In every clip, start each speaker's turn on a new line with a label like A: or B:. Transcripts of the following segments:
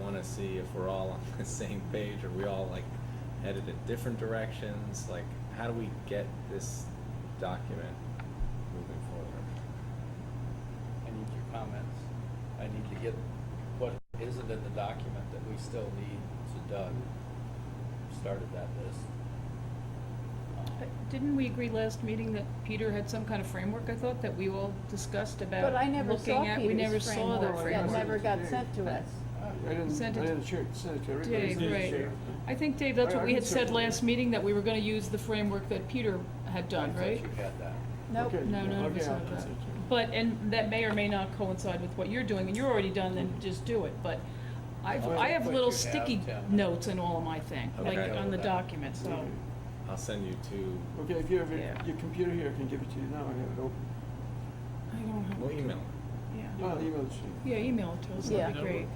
A: wanna see if we're all on the same page, are we all like headed in different directions, like, how do we get this document moving forward?
B: I need your comments. I need to get what isn't in the document that we still need, so Doug started that list.
C: Uh,
B: Um,
C: Didn't we agree last meeting that Peter had some kind of framework, I thought, that we all discussed about
D: But I never saw
C: looking at? We never
D: Peter's
C: saw that
D: framework, that
C: framework.
D: never got sent to us.
B: Um,
E: I didn't, I
C: Sent it to-
E: didn't share, it- sent it to everybody.
C: Dave, right. I think, Dave, that's
E: I-
C: what
E: I
C: we
E: can
C: had said
E: certainly-
C: last meeting, that we were gonna use the framework that Peter had done,
B: I
C: right?
B: thought you had that.
D: Nope.
E: Okay.
C: No, none of
E: Okay,
C: us
E: I'll
C: have that.
E: send it to you.
C: But, and that may or may not coincide with what you're doing, and you're already done, then just do it, but I've,
B: Well,
C: I have
B: what
C: little
B: you have,
C: sticky
B: Tim.
C: notes in all of my thing, like
A: Okay.
C: on the document, so.
A: I'll send you two,
E: Okay, if you have your,
C: Yeah.
E: your computer here, I can give it to you now, I have it open.
C: I don't have,
A: we'll email.
C: yeah.
E: I'll email it to you.
C: Yeah, email it to us, that'd be
D: Yeah.
C: great.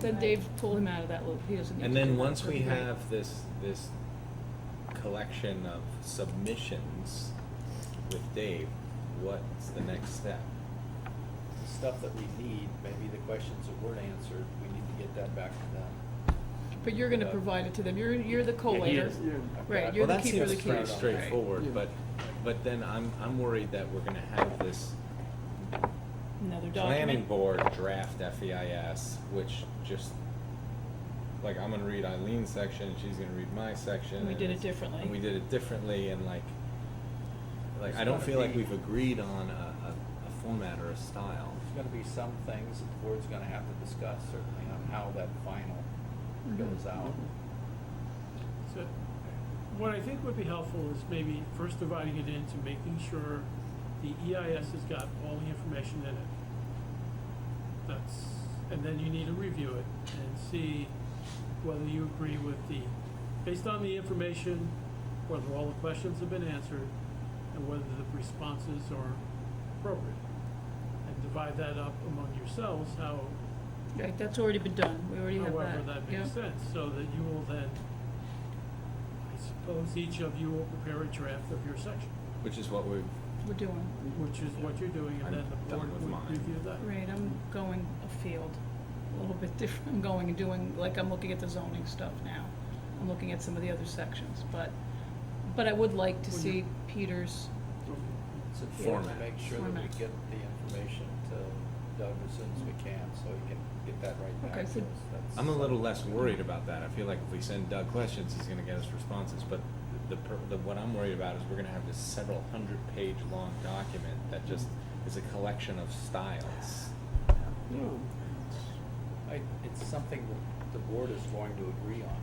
C: Then Dave pulled him out of that loop, he doesn't need to
A: And
C: do
A: then
C: that.
A: once we
C: That'd be great.
A: have this, this collection of submissions with Dave, what's the next step?
B: The Stuff that we need, maybe the questions that weren't answered, we need to get that back to them.
C: But you're gonna
B: Yeah.
C: provide it to them, you're, you're the collator.
A: is.
E: Yeah.
C: Right,
B: I've
C: you're
A: Well,
C: the
A: that
C: keeper of the
A: seems
C: key.
A: pretty
B: keys.
A: straightforward,
E: Yeah.
A: but, but then I'm, I'm worried that we're gonna have this
C: Another
A: planning
C: document.
A: board draft FEIS, which just, like, I'm gonna read Eileen's section, she's gonna read my section.
C: And we
A: and
C: did it
A: it's-
C: differently.
A: And we did it differently, and like, like,
B: It's
A: I don't
B: gotta
A: feel like
B: be-
A: we've agreed on a, a, a format or a style.
B: There's gonna be some things that the board's gonna have to discuss certainly on how that final
C: Mm-hmm.
B: goes out.
F: So, what I think would be helpful is maybe first dividing it into making sure the EIS has got all the information in it. That's, and then you need to review it and see whether you agree with the, based on the information, whether all the questions have been answered, and whether the responses are appropriate. And divide that up among yourselves, how
C: Right, that's already been done, we already have that.
F: However, that
C: Yeah.
F: makes sense, so that you will then, I suppose each of you will prepare a draft of your section,
A: Which is what we've,
C: We're doing,
F: which is what you're doing,
A: I'm
F: and then the
A: done
F: board
A: with mine.
F: would review that.
C: right, I'm going afield, a little bit different, I'm going and doing, like, I'm looking at the zoning stuff now. I'm looking at some of the other sections, but, but I would like to
F: Well,
C: see
F: you-
C: Peter's,
B: It's
A: Format.
B: important to make sure that we
C: Format.
B: get the information to Doug as soon as we can, so he can get that right back to
C: Okay,
B: us.
C: so-
B: That's-
A: I'm a little less worried about that. I feel like if we send Doug questions, he's gonna get us responses, but the, per- the, what I'm worried about is we're gonna have this several hundred page long document that just is a collection of styles.
E: No,
B: I, it's something that the board is going to agree on.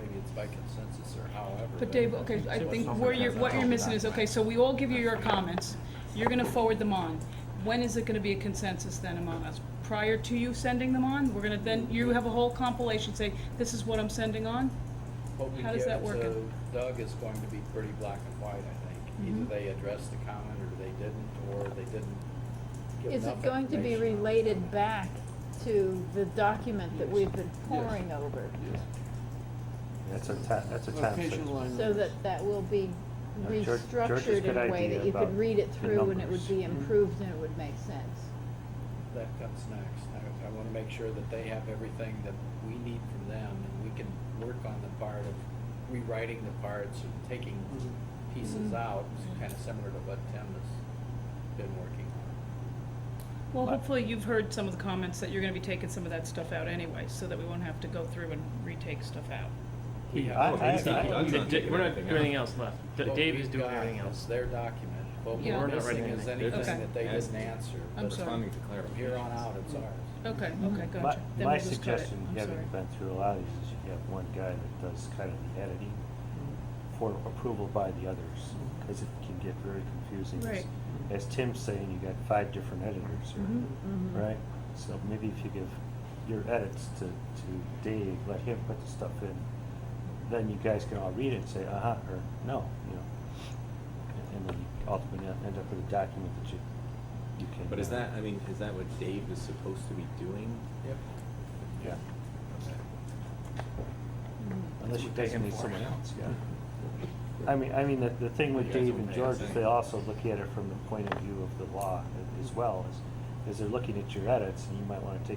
B: Maybe it's by consensus or however.
C: but Dave, okay, I think where you're, what you're missing is, okay, so we all give you your comments, you're gonna forward them on. When is it gonna be a consensus then among us? Prior to you sending them on, we're gonna then, you have a whole compilation, say, this is what I'm sending on?
B: What we
C: how does
B: give
C: that work
B: to
C: in-
B: Doug is going to be pretty black and white, I think. Either
C: Mhm.
B: they addressed the comment or they didn't, or they didn't give
D: Is
B: enough
D: it going to be
B: information.
D: related back to the document that
E: Yes.
D: we've been
E: Yes.
D: poring over?
E: yes.
G: That's a ta, that's a time
E: Location
G: sensor.
E: alignment.
D: So that that will be
G: Now, George- George's
D: restructured in
G: good
D: a way
G: idea
D: that you could
G: about
D: read it
G: the
D: through and it would
G: numbers. Mm-hmm.
D: be
E: Mhm.
D: improved and it would make sense.
B: That comes next. I, I wanna make sure that they have everything that we need from them, and we can work on the part of rewriting the parts and taking
E: Mhm.
C: Mm-hmm.
B: pieces out, kinda similar to what Tim has been working on.
C: Well, hopefully you've heard some of the comments that you're gonna be taking some of that stuff out anyway, so that we won't have to go through and retake stuff out.
B: We
H: Yeah,
B: have-
C: Oh,
G: I- I-
B: Well,
A: not-
G: I-
A: Doug's
H: We're
A: not taking
H: not doing
A: anything out.
H: anything else left. D-
B: what
H: Dave
B: we've
H: is doing
B: got
H: everything
B: is
H: else.
B: their document, but what
C: Yeah.
B: we're
C: We're not
B: missing
H: writing
B: is
H: anything.
B: anything
C: Okay.
B: that they didn't answer.
C: I'm
B: but
C: sorry.
A: Responding to
B: From here on
A: clarifications.
B: out, it's ours.
C: Okay,
D: Mhm.
C: okay,
G: My-
C: gotcha. Then
G: My
C: we'll just cut it.
G: suggestion,
C: I'm sorry.
G: having been through a lot of these, is you have one guy that does kind of the editing
E: Mm-hmm.
G: for approval by the others, because it can get very confusing.
C: Right.
G: As as Tim's saying, you got five different editors, or-
C: Mhm,
D: mhm.
G: right? So maybe if you give your edits to, to Dave, let him put the stuff in, then you guys can all read it and say, uh-huh, or no, you know? And- And then you ultimately end up with a document that you, you can.
A: But is
G: uh,
A: that, I mean, is that what Dave is supposed to be doing?
B: Yep.
G: Yeah.
C: Mm-hmm.
D: Mhm.
G: Unless
A: That's
G: you
A: what they
G: designate
A: inform
G: someone
A: us.
G: else, yeah. I mean, I mean, the, the thing with
A: You guys
G: Dave
A: will
G: and
A: pay
G: George
A: us
G: is
A: anyway.
G: they also look at it from the point of view of the law a- as well, is, is they're looking at your edits, and you might wanna take